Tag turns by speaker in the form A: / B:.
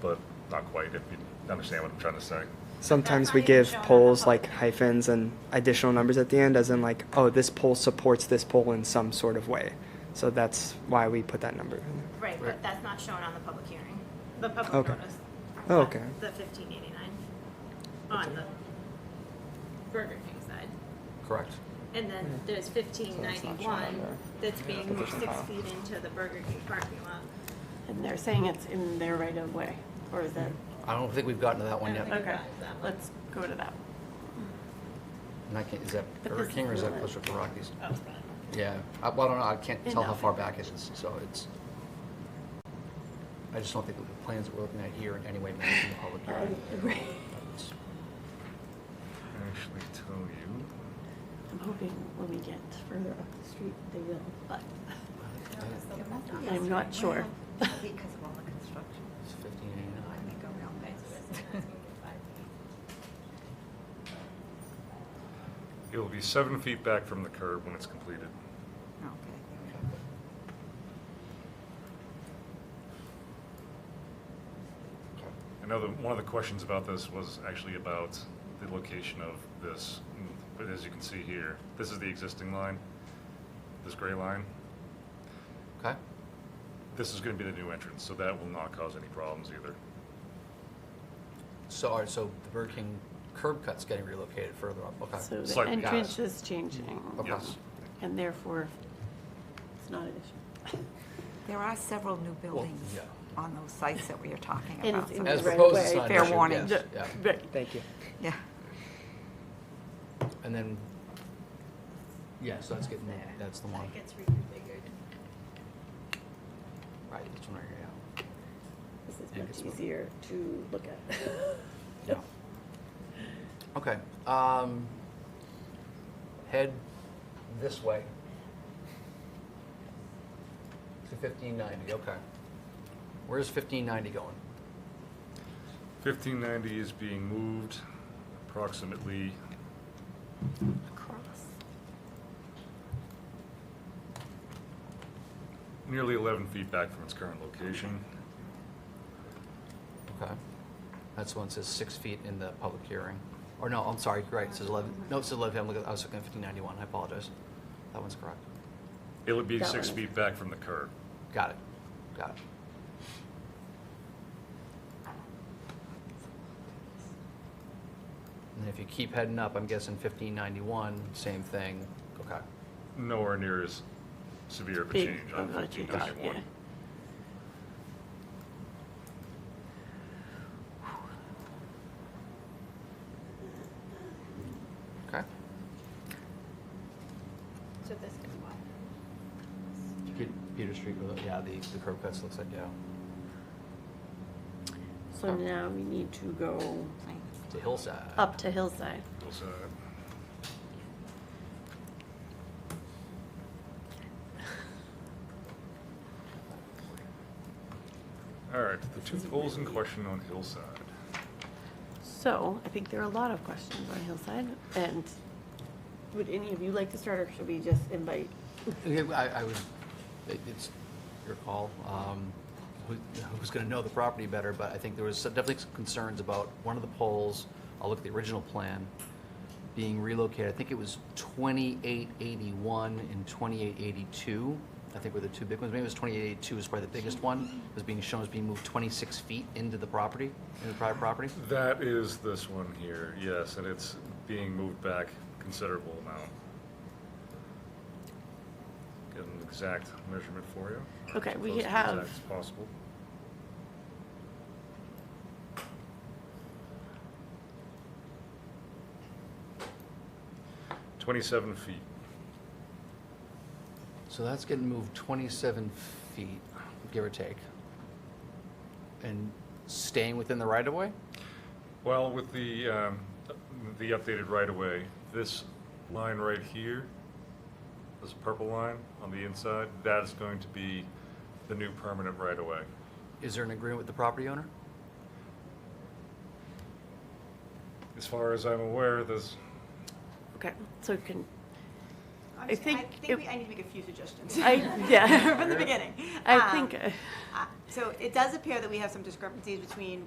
A: but not quite, if you understand what I'm trying to say.
B: Sometimes we give polls like hyphens and additional numbers at the end, as in like, oh, this poll supports this poll in some sort of way. So that's why we put that number in there.
C: Right, but that's not shown on the public hearing, the public
B: Okay.
C: notice.
B: Oh, okay.
C: The fifteen eighty-nine on the Burger King side.
D: Correct.
C: And then there's fifteen
B: that's Hmm. not shown on
C: ninety-one
B: there.
C: that's being moved
B: doesn't
C: six
B: count.
C: feet into the Burger King parking lot.
E: And they're saying it's in their right of way, or is that,
D: I don't think we've gotten to that one
C: I don't
D: yet.
C: think-
E: okay,
C: that one.
E: let's go to that.
D: And I can't, is that
E: But
D: Burger
E: this
D: King or is
E: is
D: that
E: not-
D: closer to Rockies?
C: Oh,
D: Yeah, I, well, I don't know, I can't tell how
E: Enough.
D: far back it is, so it's, I just don't think that the plans that we're looking at here in any way match the public hearing. It's-
A: Actually tell you,
E: I'm hoping when we get further up the street, they will, but I'm not sure.
F: Because of all the construction.
D: It's 1589.
F: Make a real nice business.
A: it will be seven feet back from the curb when it's completed.
F: Okay.
A: I know that one of the questions about this was actually about the location of this, but as you can see here, this is the existing line, this gray line.
D: Okay,
A: This is gonna be the new entrance, so that will not cause any problems either.
D: so, all right, so the Burger King curb cut's getting relocated further up,
E: So
D: okay.
E: the
A: Slightly.
E: entrance is changing,
D: Uh, Okay.
A: Yes.
E: and therefore, it's not an issue.
F: There are several new buildings
D: yeah.
F: on those sites that we are talking
E: And
F: about.
E: it's in
F: so-
D: As
E: the right
D: proposed,
E: of
D: it's
E: way.
D: not an
F: Fair
D: issue,
F: warning.
D: yes, yeah.
E: Right.
B: Thank you.
F: Yeah,
D: And then, yeah, so that's getting, that's the one,
C: That gets reconfigured.
D: right, that's one right here,
E: This
D: Yeah, it's
E: is
D: more-
E: much easier to look at.
D: yeah. Yeah. Okay, um, head this way. To fifteen ninety, okay. Where's fifteen ninety going?
A: Fifteen ninety is being moved approximately
F: across.
A: nearly eleven feet back from its current location.
D: Okay. That's the one that says six feet in the public hearing. Or no, I'm sorry, right, it says eleven, no, it says eleven, I'm looking, I was looking at fifteen ninety-one, I apologize. That one's correct.
A: It would be
E: That
A: six
E: one.
A: feet back from the curb.
D: Got it, got it. And then if you keep heading up, I'm guessing fifteen ninety-one, same thing, okay.
A: Nowhere near as severe of a
E: Big Oh,
A: change on
E: of a
A: fifteen
E: change,
A: ninety-one.
D: Okay.
C: So this is what?
D: Peter Street, yeah, the, the curb cuts looks like, yeah,
E: So now we need to go
D: it's a hillside.
E: up to Hillside.
A: Also, All right, the two poles in question on Hillside.
E: So I think there are a lot of questions on Hillside, and would any of you like to start, or should we just invite?
D: Okay, well, I, I would, it- it's your call, um, who, who's gonna know the property better, but I think there was some- definitely some concerns about one of the poles, I'll look at the original plan, being relocated, I think it was twenty-eight eighty-one and twenty-eight eighty-two, I think were the two big ones, maybe it was twenty-eight eighty-two is probably the biggest one, was being shown as being moved twenty-six feet into the property, into the private property.
A: That is this one here, yes, and it's being moved back considerable amount. Get an exact measurement for you.
E: Okay, we
A: Close to
E: have-
A: exact As possible. Twenty-seven feet.
D: So that's getting moved 27 feet, give or take. And staying within the right-of-way?
A: Well, with the, um, the updated right-of-way, this line right here, this purple line on the inside, that is going to be the new permanent right-of-way.
D: Is there an agreement with the property owner?
A: As far as I'm aware, there's,
E: Okay, so can, I
C: just-
E: think
C: I
E: it-
C: think we- I need to make a few suggestions.
E: I, yeah.
C: From the beginning.
E: I
C: Um,
E: think. uh,
C: uh, So it does appear that we have some discrepancies between